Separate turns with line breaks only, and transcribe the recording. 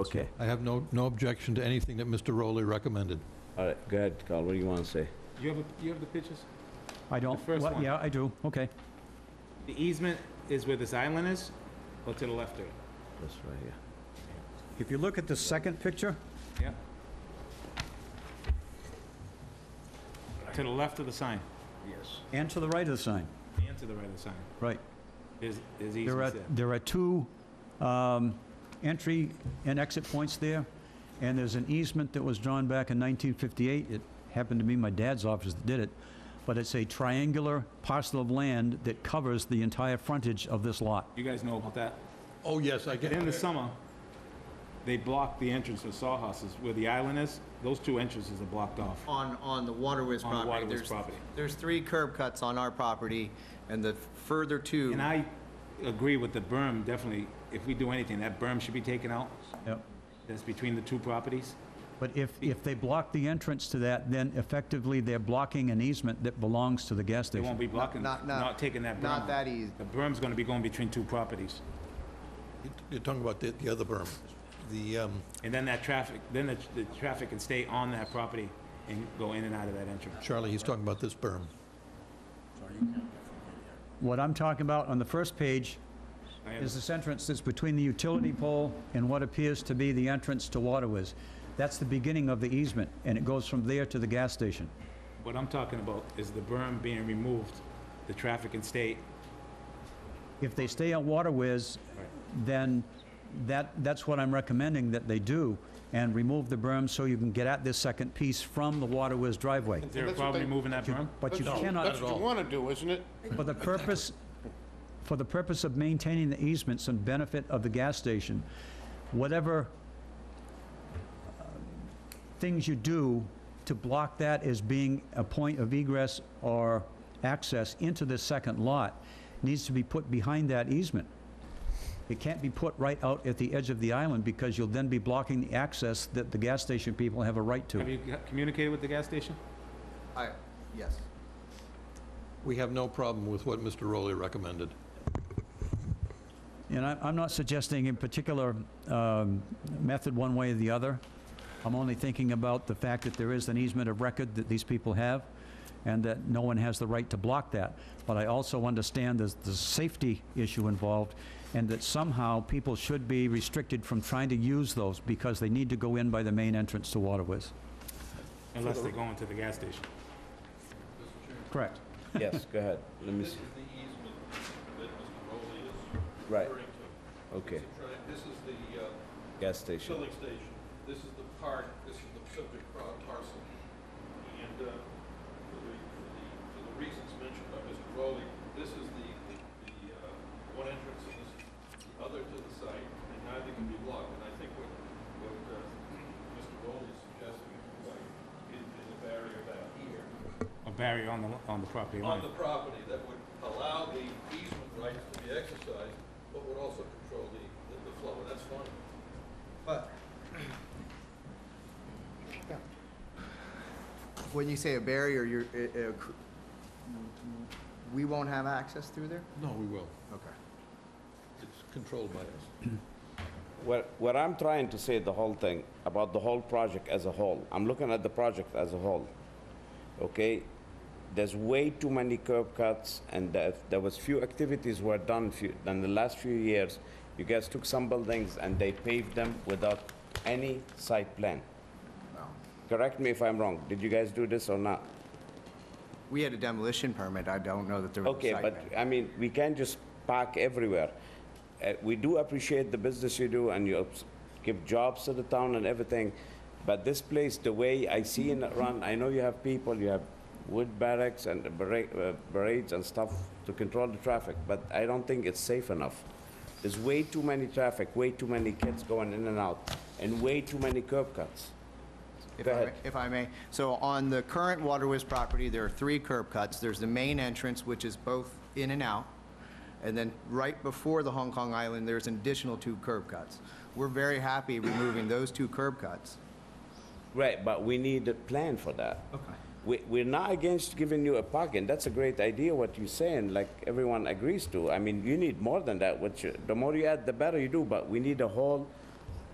Okay,
I have no, no objection to anything that Mr. Rowley recommended.
All right, go ahead, Carl, what do you want to say?
You have, a- you have the pictures?
I don't,
first
well,
one.
yeah, I do, okay.
The easement is where this island is, or to the left of it?
That's right here.
If you look at the second picture,
Yeah. To the left of the sign,
Yes.
and to the right of the sign,
and to the right of the sign.
right.
There's, there's
There are,
easements there.
there are two um, entry and exit points there, and there's an easement that was drawn back in 1958. It happened to be my dad's office that did it, but it's a triangular parcel of land that covers the entire frontage of this lot.
You guys know about that?
Oh, yes, I
In the
get,
summer, they block the entrance to Sawhorses where the island is. Those two entrances are blocked off.
on, on the Waterwiz
On the
property.
Waterwiz
There's-
property.
There's three curb cuts on our property, and the further two,
And I agree with the berm, definitely. If we do anything, that berm should be taken out.
Yep.
That's between the two properties.
But if, if they block the entrance to that, then effectively they're blocking an easement that belongs to the gas
They won't
station.
be blocking,
not-
not
not-
taking that berm.
not
out.
that easy.
The berm's gonna be going between two properties.
you're talking about the, the other berm. The, um,
And then that traffic, then the, the traffic can stay on that property and go in and out of that entrance.
Charlie, he's talking about this berm.
What I'm talking about on the first page
I
is this entrance that's between the utility pole and what appears to be the entrance to Waterwiz. That's the beginning of the easement, and it goes from there to the gas station.
What I'm talking about is the berm being removed, the traffic can stay,
If they stay on Waterwiz, then that, that's what I'm recommending that they do, and remove the berm so you can get at this second piece from the Waterwiz driveway.
is there a
That's what
problem
they-
removing that berm?
But you
That's- That's
cannot,
what you want to do, isn't it?
for the purpose, for the purpose of maintaining the easements and benefit of the gas station, whatever uh, things you do to block that as being a point of egress or access into the second lot needs to be put behind that easement. It can't be put right out at the edge of the island because you'll then be blocking the access that the gas station people have a right
Have
to.
you g- communicated with the gas station?
I, yes.
We have no problem with what Mr. Rowley recommended.
And I- I'm not suggesting in particular um, method one way or the other. I'm only thinking about the fact that there is an easement of record that these people have, and that no one has the right to block that. But I also understand there's the safety issue involved, and that somehow people should be restricted from trying to use those because they need to go in by the main entrance to Waterways.
Unless they're going to the gas station.
Correct.
Yes, go ahead, let me see. Right. Okay,
This is the uh,
gas station.
filling station, this is the part, this is the subject par- parcel. And uh, for the, for the, for the reasons mentioned by Mr. Rowley, this is the, the, the, uh, one entrance and this is the other to the site, and neither can be blocked. And I think what, what uh, Mr. Rowley is suggesting is like, is is a barrier back here
A barrier on the, on the property
on
line.
the property that would allow the easement rights to be exercised, but would also control the, the- the flow, that's fine.
But when you say a barrier, you're, it- it cr- we won't have access through there?
No, we will.
Okay.
It's controlled by us.
What, what I'm trying to say, the whole thing, about the whole project as a whole, I'm looking at the project as a whole, okay? There's way too many curb cuts, and there there was few activities were done few, in the last few years. You guys took some buildings and they paved them without any site plan. Correct me if I'm wrong, did you guys do this or not?
We had a demolition permit, I don't know that there was a
Okay,
site
but,
plan.
I mean, we can't just park everywhere. Uh, We do appreciate the business you do, and you ups- give jobs to the town and everything, but this place, the way I see in it run, I know you have people, you have wood barracks and barra- uh, parades and stuff to control the traffic, but I don't think it's safe enough. There's way too many traffic, way too many kids going in and out, and way too many curb cuts.
If
Go
I may-
ahead.
If I may, so on the current Waterwiz property, there are three curb cuts. There's the main entrance, which is both in and out, and then right before the Hong Kong Island, there's an additional two curb cuts. We're very happy removing those two curb cuts.
Right, but we need a plan for that.
Okay.
We, we're not against giving you a parking, that's a great idea what you're saying, like everyone agrees to. I mean, you need more than that, which, you- the more you add, the better you do, but we need a whole